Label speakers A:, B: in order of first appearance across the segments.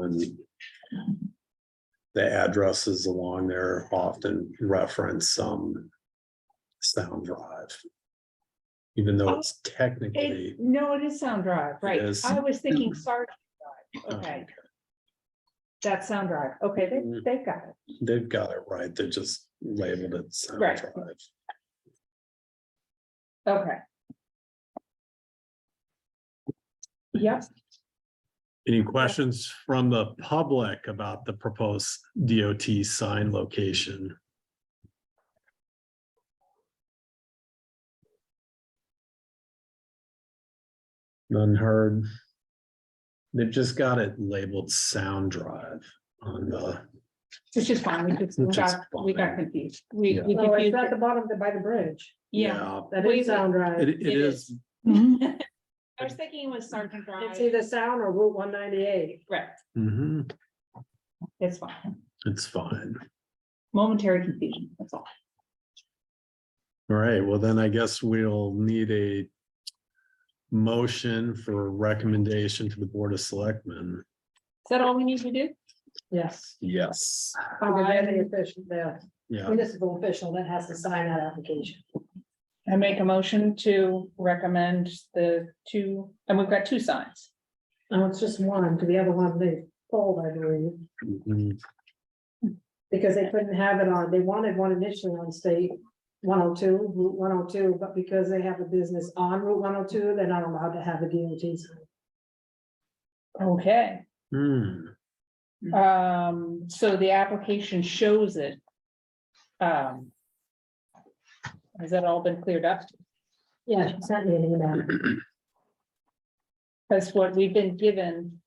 A: and the addresses along there often reference some sound drive. Even though it's technically,
B: Oh, It, no, it is Sound Drive, right?
A: It is. Mm-hmm.
B: I was thinking Sargent Drive, okay. That's Sound Drive, okay, they,
A: Mm.
B: they've got it,
A: they've got it right, they just labeled it sound
B: Right.
A: drive.
B: okay. Yep,
A: Any questions from the public about the proposed DOT sign location? None heard. They've just got it labeled sound drive on the,
B: which is fine, we just, we
A: Which is
B: got, we got
A: fine.
B: confused. We,
A: Yeah.
B: we
C: Oh, it's
B: confused,
C: at the bottom, there by the bridge.
B: yeah.
A: yeah,
C: That
B: Wait,
C: is Sound
A: it,
C: Drive.
A: it is,
B: I was thinking it was Sargent
C: It's
B: Drive,
C: either Sound or Route one ninety-eight.
B: right,
A: Mhm,
B: it's fine,
A: it's fine.
B: momentary confusion, that's all.
A: All right, well then I guess we'll need a motion for recommendation to the Board of Selectmen.
B: Is that all we need to do?
C: Yes.
A: Yes.
C: Under any official, the
A: Yeah,
C: municipal official that has to sign that application.
B: I make a motion to recommend the two, and we've got two signs.
C: No, Oh, it's just one, to the other one they pulled, I believe,
A: mhm,
C: because they couldn't have it on, they wanted one initially on state one oh two, Route one oh two, but because they have a business on Route one oh two, they're not allowed to have a DOT sign.
B: Okay.
A: hmm,
B: Um, so the application shows it. Um. Has that all been cleared up?
C: Yeah, she sent me an email.
B: That's what we've been given.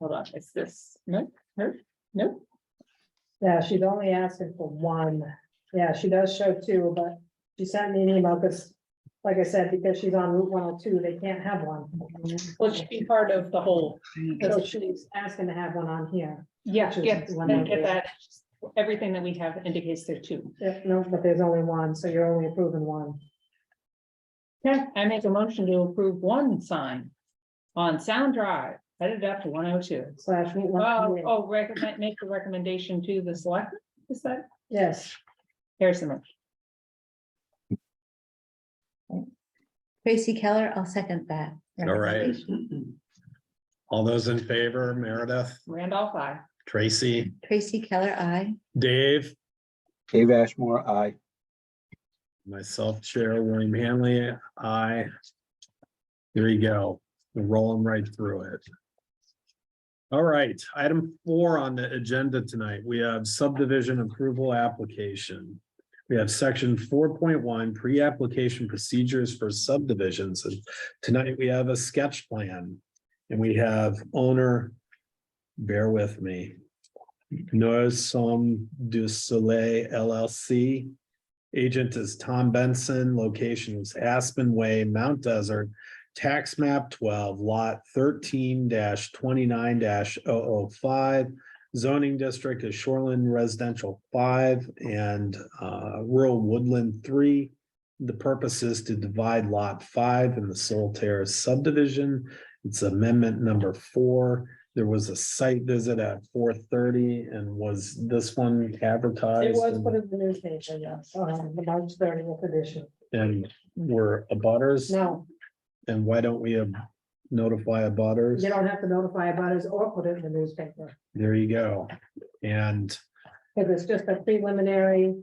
B: Hold on, it's this, no, no, no,
C: Yeah, she's only asking for one. Yeah, she does show two, but she sent me an email because, like I said, because she's on Route one oh two, they can't have one.
B: well, it should be part of the whole.
C: So she's asking to have one on here.
B: Yeah,
C: Which is
B: yeah,
C: one
B: I get
C: of the-
B: that. Everything that we have indicates there are two.
C: Yeah, no, but there's only one, so you're only approving one.
B: Okay, I make a motion to approve one sign on Sound Drive, headed up to one oh two.
C: Slash Route
B: Oh,
C: 128.
B: oh, recommend, make the recommendation to the select, is that,
C: Yes,
B: here's the motion.
D: Tracy Keller, I'll second that.
A: all right. All those in favor, Meredith,
B: Randolph, I.
A: Tracy,
D: Tracy Keller, I.
A: Dave,
E: Dave Ashmore, aye.
A: myself, Chair William Hanley, I. There you go, rolling right through it. All right, item four on the agenda tonight, we have subdivision approval application. We have section four point one, pre-application procedures for subdivisions, and tonight we have a sketch plan. And we have owner, bear with me. Noah Som du Soleil LLC. Agent is Tom Benson, location is Aspen Way, Mount Desert, tax map twelve, lot thirteen twenty-nine 5 Zoning district is Shoreland Residential five and uh, rural woodland three. The purpose is to divide lot five in the Soul Terrace subdivision. It's amendment number four. There was a site visit at four thirty and was this one advertised?
C: it was
A: and-
C: put in the newspaper, yes, um, the March thirtieth edition.
A: and we're abutters,
C: No,
A: and why don't we um, notify abutters?
C: you don't have to notify about it or put it in the newspaper.
A: There you go. And
C: Because it's just a preliminary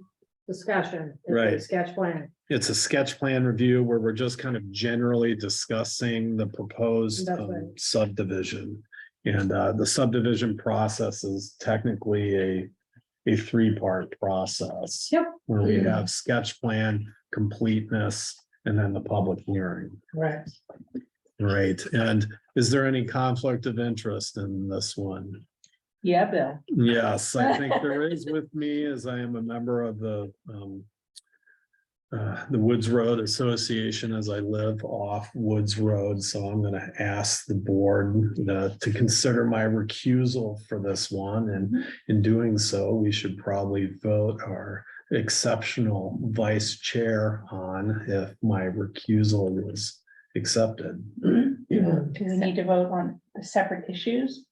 C: discussion. It's a
A: Right.
C: Sketch plan.
A: it's a sketch plan review where we're just kind of generally discussing the proposed
C: That's
A: um,
C: right.
A: subdivision. And uh, the subdivision process is technically a, a three-part process.
C: Yep.
A: Where we have sketch plan, completeness, and then the public hearing.
C: Right.
A: Right, and is there any conflict of interest in this one?
B: Yeah, Bill.
A: Yes, I think there is with me as I am a member of the um. Uh, the Woods Road Association as I live off Woods Road, so I'm gonna ask the board uh, to consider my recusal for this one. And in doing so, we should probably vote our exceptional vice chair on if my recusal was accepted.
B: Do we need to vote on the separate issues?